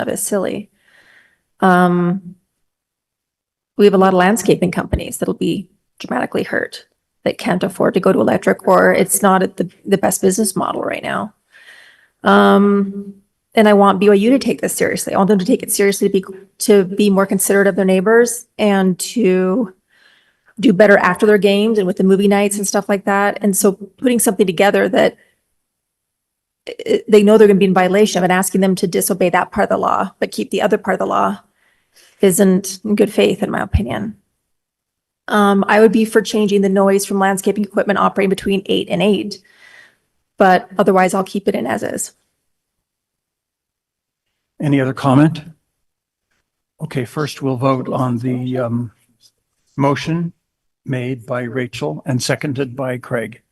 of is silly. Um, we have a lot of landscaping companies that'll be dramatically hurt that can't afford to go to electric or it's not at the, the best business model right now. Um, and I want BYU to take this seriously. I want them to take it seriously to be, to be more considerate of their neighbors and to do better after their games and with the movie nights and stuff like that. And so putting something together that i- they know they're going to be in violation of and asking them to disobey that part of the law, but keep the other part of the law isn't in good faith, in my opinion. Um, I would be for changing the noise from landscaping equipment operating between eight and eight. But otherwise I'll keep it in as is. Any other comment? Okay, first we'll vote on the um, motion made by Rachel and seconded by Craig.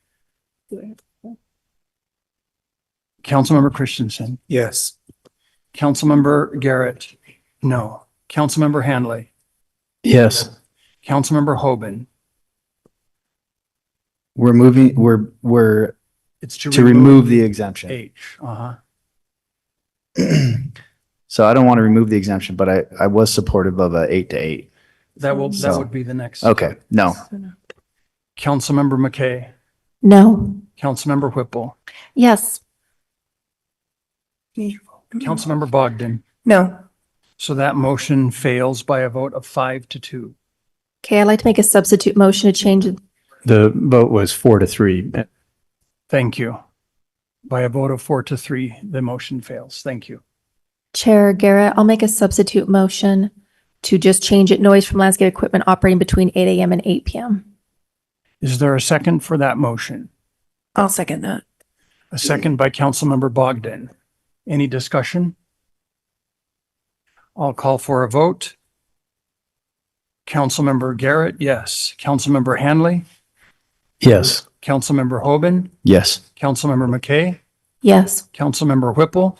Councilmember Christensen, Yes. Councilmember Garrett, no. Councilmember Hanley, Yes. Councilmember Hoban. We're moving, we're, we're It's to remove the exemption. H, uh-huh. So I don't want to remove the exemption, but I, I was supportive of a eight to eight. That will, that So- would be the next. Okay, no. Councilmember McKay, No. Councilmember Whipple, Yes. Councilmember Bogdan. No. So that motion fails by a vote of five to two. Okay, I'd like to make a substitute motion to change it. The vote was four to three. Thank you. By a vote of four to three, the motion fails. Thank you. Chair Garrett, I'll make a substitute motion to just change it noise from landscape equipment operating between eight AM and eight PM. Is there a second for that motion? I'll second that. A second by Councilmember Bogdan. Any discussion? I'll call for a vote. Councilmember Garrett, yes. Councilmember Hanley, Yes. Councilmember Hoban, Yes. Councilmember McKay, Yes. Councilmember Whipple,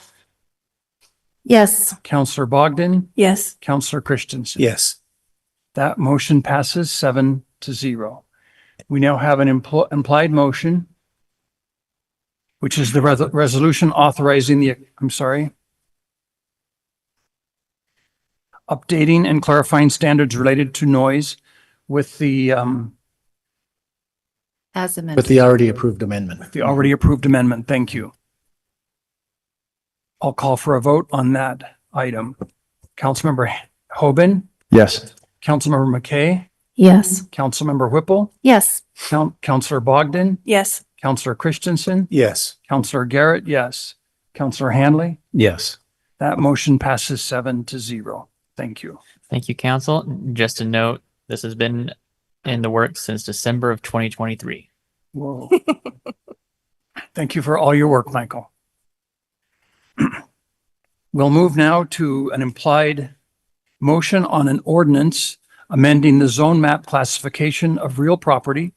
Yes. Councilor Bogdan, Yes. Councilor Christensen. Yes. That motion passes seven to zero. We now have an impl- implied motion, which is the res- resolution authorizing the, I'm sorry, updating and clarifying standards related to noise with the, um, As amended. With the already approved amendment. the already approved amendment. Thank you. I'll call for a vote on that item. Councilmember Hoban, Yes. Councilmember McKay, Yes. Councilmember Whipple, Yes. Coun- Councilor Bogdan, Yes. Counselor Christensen, Yes. Counselor Garrett, yes. Counselor Hanley, Yes. that motion passes seven to zero. Thank you. Thank you, council. Just a note, this has been in the works since December of 2023. Whoa. Thank you for all your work, Michael. We'll move now to an implied motion on an ordinance amending the zone map classification of real property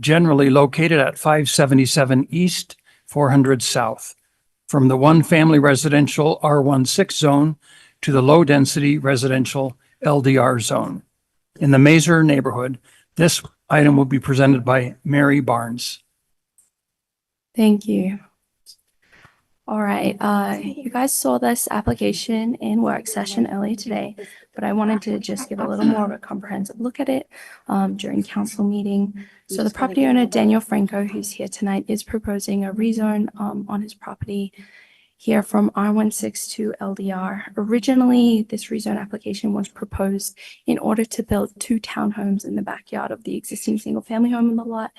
generally located at 577 East, 400 South, from the one-family residential R16 zone to the low-density residential LDR zone. In the Mazer neighborhood, this item will be presented by Mary Barnes. Thank you. All right, uh, you guys saw this application in work session earlier today, but I wanted to just give a little more of a comprehensive look at it um, during council meeting. So the property owner, Daniel Franco, who's here tonight, is proposing a rezone um, on his property here from R16 to LDR. Originally, this rezone application was proposed in order to build two townhomes in the backyard of the existing single-family home in the lot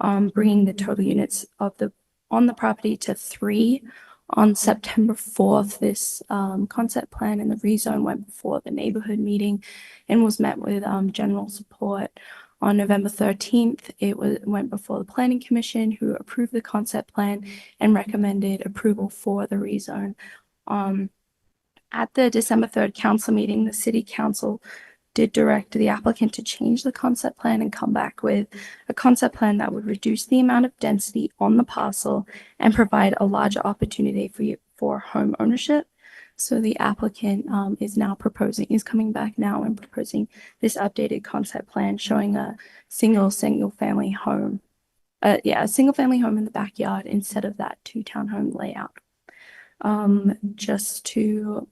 um, bringing the total units of the, on the property to three. On September fourth, this, um, concept plan and the rezone went before the neighborhood meeting and was met with, um, general support. On November thirteenth, it was, went before the planning commission who approved the concept plan and recommended approval for the rezone. Um, at the December third council meeting, the city council did direct the applicant to change the concept plan and come back with a concept plan that would reduce the amount of density on the parcel and provide a larger opportunity for you for home ownership. So the applicant um, is now proposing, is coming back now and proposing this updated concept plan showing a single, single family home. Uh, yeah, a single family home in the backyard instead of that two townhome layout. Um, just to